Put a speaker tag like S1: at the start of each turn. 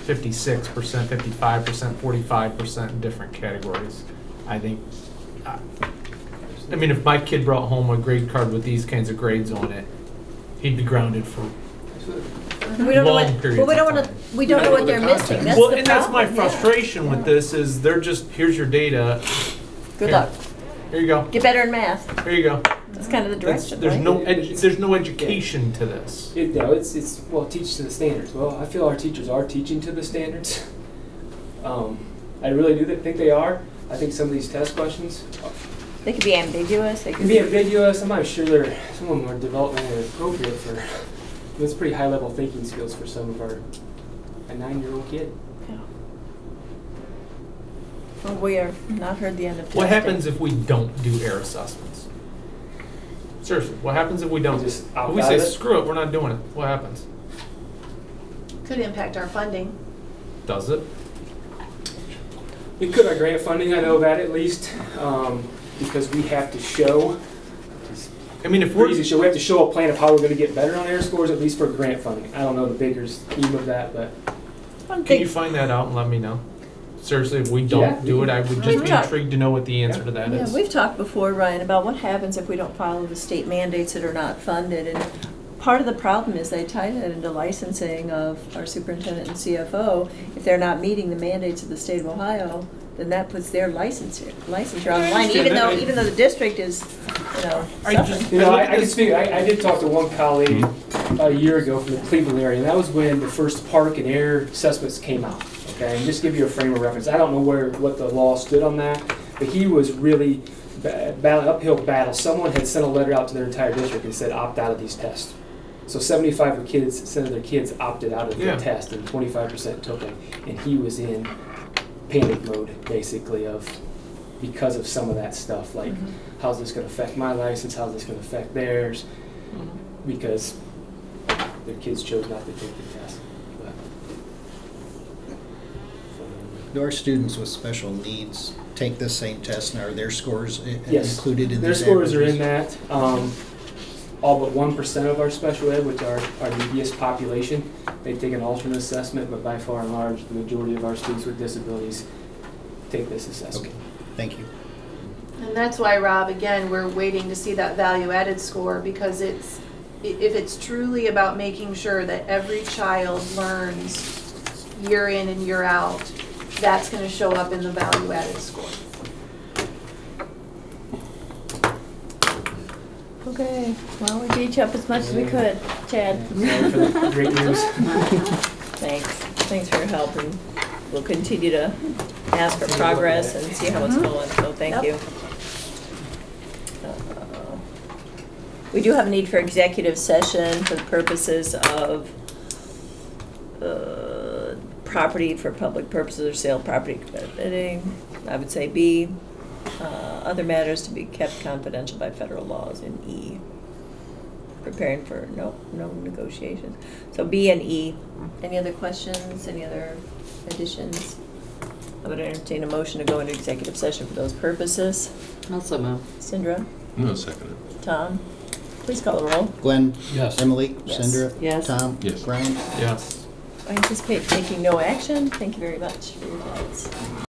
S1: fifty-six percent, fifty-five percent, forty-five percent in different categories. I think, I I mean, if my kid brought home a grade card with these kinds of grades on it, he'd be grounded for
S2: We don't know
S1: long
S2: what,
S1: periods
S2: well, we
S1: of
S2: don't want
S1: time.
S2: to, we don't know what they're missing, that's the
S1: Well, and that's my
S2: problem, yeah.
S1: frustration with
S2: Yeah.
S1: this is they're just, here's your data,
S2: Good
S1: Here.
S2: luck,
S1: here you go,
S2: get better in math,
S1: here you go.
S2: that's kind of the
S1: That's-
S2: direction,
S1: There's
S2: right?
S1: no, edu- there's no education to this.
S3: It, no, it's it's well, teach to the standards. Well, I feel our teachers are teaching to the standards. Um, I really do th- think they are. I think some of these test questions
S2: They could be ambiguous, they
S3: can
S2: could be,
S3: be ambiguous. I'm not sure they're some of them are developmentally appropriate for. It's pretty high level thinking skills for some of our a nine year old kid.
S2: well, we have not heard the end of testing.
S1: What happens if we don't do air assessments? Seriously, what happens if we don't?
S3: Just
S1: If we
S3: opt out
S1: say,
S3: of it?
S1: screw it, we're not doing it, what happens?
S4: Could impact our funding.
S1: Does it?
S3: We could our grant funding. I know that at least um, because we have to show.
S1: I mean, if
S3: Pretty
S1: we're,
S3: easy to show. We have to show a plan of how we're going to get better on air scores, at least for grant funding. I don't know the bigger scheme of that, but
S2: One
S1: can you
S2: thing,
S1: find that out and let me know? Seriously, if we
S3: Yeah.
S1: don't do it, I would just
S2: We've
S1: be
S2: talked-
S1: intrigued to know what the answer to that
S2: yeah,
S1: is.
S2: we've talked before, Ryan, about what happens if we don't follow the state mandates that are not funded, and part of the problem is they tie that into licensing of our superintendent and CFO. If they're not meeting the mandates of the state of Ohio, then that puts their license, licensure on the line,
S1: understand
S2: even though,
S1: that. I-
S2: even though the district is, you know,
S1: I
S2: suffering.
S1: just-
S3: You know, I,
S1: looked
S3: I can
S1: this-
S3: speak, I, I did talk to one colleague a year ago from the Cleveland area, and that was when the first park and air assessments came out, okay? And just give you a frame of reference, I don't know where, what the law stood on that, but he was really ba- battle, uphill battle. Someone had sent a letter out to their entire district and said, opt out of these tests. So seventy-five of kids, percent of their kids opted out of
S1: Yeah.
S3: the test, and twenty-five percent took it. And he was in panic mode, basically, of, because of some of that stuff, like, how's this gonna affect my license, how's this gonna affect theirs, because their kids chose not to take the test. But
S5: Do our students with special needs take this same test and are their scores i-
S3: Yes.
S5: included in
S3: Their
S5: these
S3: scores are in
S5: averages?
S3: that, um, all but one percent of our special ed, which are our neediest population, they take an alternate assessment, but by far and large, the majority of our students with disabilities take this
S5: Okay,
S3: assessment.
S5: thank you.
S4: And that's why, Rob, again, we're waiting to see that value-added score because it's, i- if it's truly about making sure that every child learns year in and year out, that's gonna show up in the value-added score.
S2: Okay, well, we beat you up as much as we could, Chad.
S3: Sorry for the Great news.
S2: Thanks, thanks for your help, and we'll continue to ask for progress and see how it's going, so thank you. We do have a need for executive session for the purposes of uh, property for public purposes or sale of property, bidding, I would say B. Uh, Other matters to be kept confidential by federal laws in E. Preparing for, no, no negotiations. So B and E. Any other questions, any other additions? I would entertain a motion to go into executive session for those purposes.
S6: Also move.
S2: Syndra,
S7: No, second it.
S2: Tom, please call the roll.
S5: Glenn?
S7: Yes.
S5: Emily?
S2: Yes.
S5: Sandra?
S6: Yes.
S5: Tom?
S7: Yes.
S5: Brian?
S1: Yes.
S2: I anticipate taking no action. Thank you very much for your thoughts.